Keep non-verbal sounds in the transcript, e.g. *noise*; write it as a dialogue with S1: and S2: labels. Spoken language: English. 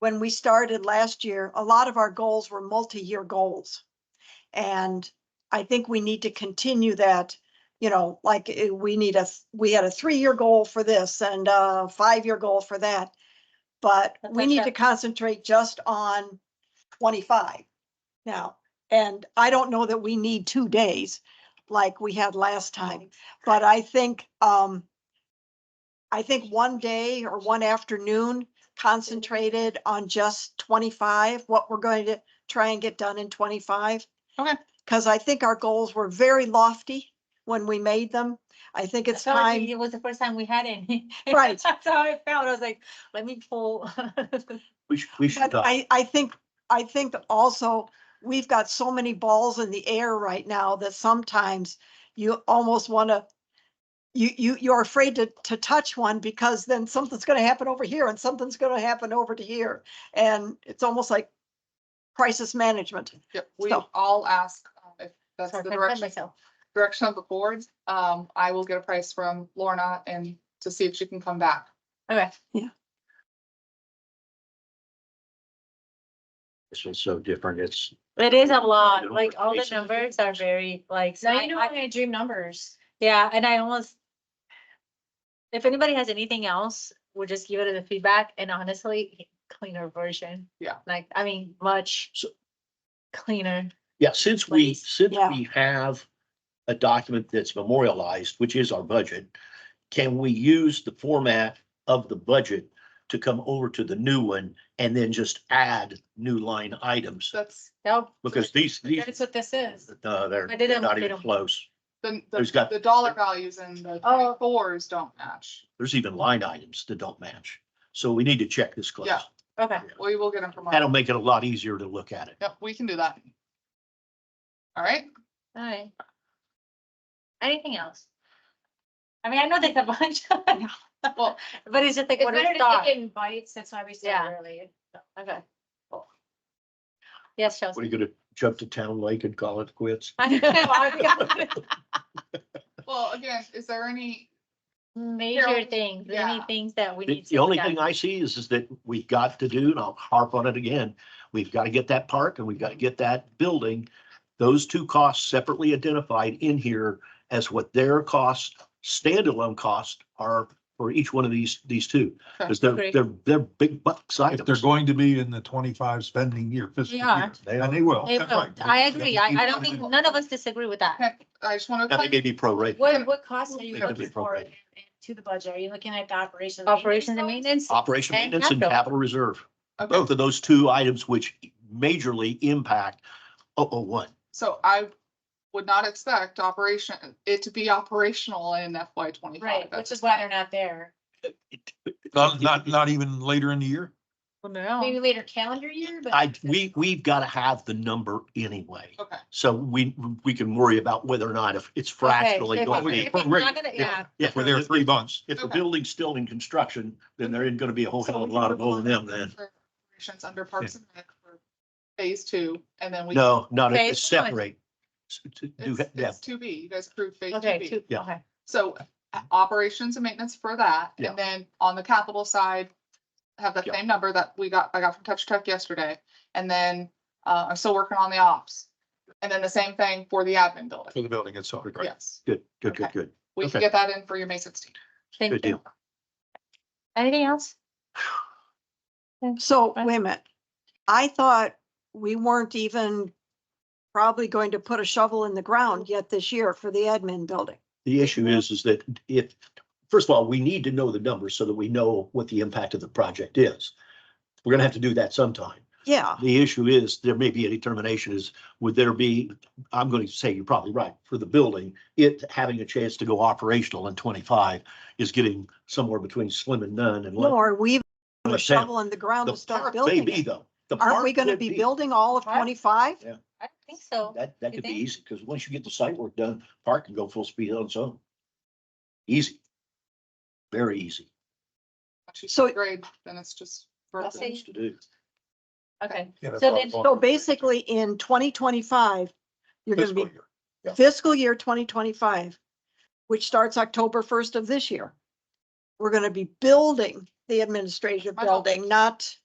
S1: when we started last year, a lot of our goals were multi-year goals. And I think we need to continue that, you know, like eh, we need a, th- we had a three-year goal for this and a five-year goal for that. But
S2: But
S1: we
S2: that's
S1: need
S2: not-
S1: to concentrate just on twenty-five now. And I don't know that we need two days like we had last time, but I think, um, I think one day or one afternoon concentrated on just twenty-five, what we're going to try and get done in twenty-five.
S2: Okay.
S1: Because I think our goals were very lofty when we made them. I think it's
S2: I felt like
S1: time,
S2: It was the first time we had any. *laughs*
S1: Right.
S2: That's how I felt. I was like, let me pull. *laughs*
S3: We should, we
S1: but
S3: should, uh,
S1: I, I think, I think also, we've got so many balls in the air right now that sometimes you almost want to, you, you, you're afraid to, to touch one because then something's going to happen over here and something's going to happen over to here. And it's almost like crisis management.
S4: Yep, we
S1: So-
S4: all ask um, if that's
S2: Sorry,
S4: the
S2: I couldn't find
S4: direction,
S2: myself.
S4: direction of the board. Um, I will get a price from Lorna and to see if she can come back.
S2: Okay,
S3: this is so different. It's,
S2: it is a lot,
S3: Little
S2: like all the
S3: presentation.
S2: numbers are very like.
S5: Now
S2: I-
S5: you know
S2: I-
S5: I'm gonna dream numbers.
S2: Yeah, and I almost. If anybody has anything else, we'll just give it a feedback and honestly, cleaner version.
S4: Yeah.
S2: Like, I mean, much
S3: So-
S2: cleaner.
S3: yeah, since we,
S2: Please.
S3: since
S1: Yeah.
S3: we have a document that's memorialized, which is our budget, can we use the format of the budget to come over to the new one and then just add new line items?
S4: That's
S2: Nope.
S3: Because these, these,
S5: That's what this is.
S3: no, they're
S2: I didn't-
S3: they're not
S2: they
S3: even
S2: don't-
S3: close.
S4: the,
S3: Who's got-
S4: the, the dollar values and the
S2: Oh.
S4: fours don't match.
S3: There's even line items that don't match. So we need to check this close.
S4: Yeah.
S2: Okay,
S4: We will get them from.
S3: That'll make it a lot easier to look at it.
S4: Yep, we can do that. All right,
S2: all right. Anything else? I mean, I know there's a *laughs* bunch.
S4: Well-
S2: But it's just like,
S5: It's
S2: what
S5: better
S2: is
S5: to
S2: that?
S5: take it in bites. That's why we
S2: Yeah.
S5: start early.
S2: Okay. cool. Yes,
S3: What are
S2: Chelsea.
S3: you gonna jump to town lake and call it quits?
S2: *laughs* I know, I
S3: *laughs*
S2: forgot.
S4: well, again, is there any,
S2: Major things, any
S4: yeah.
S2: things that we
S3: The,
S2: need. to
S3: the only
S2: look at.
S3: thing I see is, is that we've got to do, and I'll harp on it again, we've got to get that park and we've got to get that building. Those two costs separately identified in here as what their costs, standalone costs are for each one of these, these two. Because they're,
S2: Agree.
S3: they're, they're big bucks
S6: If they're
S3: items.
S6: going to be in the twenty-five spending year fiscal
S2: are.
S6: year, and they will.
S2: They
S6: that's
S2: will.
S6: right.
S2: I agree. I, I don't think,
S6: Keep-
S2: none of us disagree with that.
S4: can- I just want
S3: Now, they
S4: to,
S3: may be prorated.
S5: What, what costs are you
S3: It could be
S5: looking for
S3: appropriate.
S5: in- to the budget? Are you looking at the operations?
S2: Operations and maintenance,
S3: Operation
S2: And
S3: maintenance and
S2: capital.
S3: capital reserve,
S4: okay,
S3: both of those two items which majorly impact 001.
S4: so I would not expect operation, it to be operational in FY twenty-five.
S5: Right, which is why they're not there.
S6: Not, not, not even later in the year?
S5: Maybe later calendar year, but.
S3: I, we, we've got to have the number anyway.
S4: Okay.
S3: So we, we can worry about whether or not if it's fractionally
S2: if
S3: going to
S2: it-
S3: be.
S2: if it's not gonna-
S6: If-
S2: yeah.
S3: Yeah,
S6: If we're there three months,
S3: If the
S4: Okay.
S3: building's still in construction, then there isn't going to be a whole hell of a lot of O and M then.
S4: Operations under Parks and Rec for phase two, and then we.
S3: No, not
S2: Okay,
S3: if it's
S2: it's fine.
S3: separate. S- to do-
S4: It's,
S3: yeah,
S4: it's two B, you guys approved phase two
S2: okay,
S4: B.
S2: two,
S3: Yeah.
S2: okay.
S4: So uh, operations and maintenance for that,
S3: Yeah.
S4: and then on the capital side, have that
S3: Yeah.
S4: same number that we got, I got from Touch Tech yesterday, and then, uh, I'm still working on the ops. And then the same thing for the admin
S6: for
S4: building,
S6: the building itself.
S4: yes,
S3: Good, good, good,
S4: Okay.
S3: good.
S4: we can
S3: Okay.
S4: get that in for your May sixteen.
S3: Good
S2: Thank you.
S3: deal.
S2: Anything else?
S1: So
S2: Right.
S1: wait a minute. I thought we weren't even probably going to put a shovel in the ground yet this year for the admin building.
S3: The issue is, is that if, first of all, we need to know the numbers so that we know what the impact of the project is. We're going to have to do that sometime.
S1: Yeah,
S3: The issue is, there may be a determination is, would there be, I'm going to say you're probably right, for the building, it having a chance to go operational in twenty-five is getting somewhere between slim and none and.
S1: nor we put a
S3: Understand.
S1: shovel in the ground to
S3: The
S1: start
S3: park may
S1: building
S3: be
S1: it.
S3: though. The
S1: Aren't
S3: park
S1: we gonna
S3: could
S1: be building all of
S2: Park?
S1: twenty-five?
S2: I don't think so.
S3: That, that
S2: You
S3: could be
S2: think?
S3: easy, because once you get the site work done, park can go full speed on its own. Easy. Very easy.
S1: So-
S4: Grade, then it's just.
S2: I'll
S4: vertical.
S2: say-
S3: Things to do.
S2: Okay,
S6: Yeah, that's
S2: So
S6: what I
S2: then-
S6: thought.
S1: So basically in twenty twenty-five, you're gonna
S6: Fiscal
S1: be
S6: year.
S3: yeah.
S1: fiscal year twenty twenty-five, which starts October first of this year. We're gonna be building the administrative
S4: I know.
S1: building, not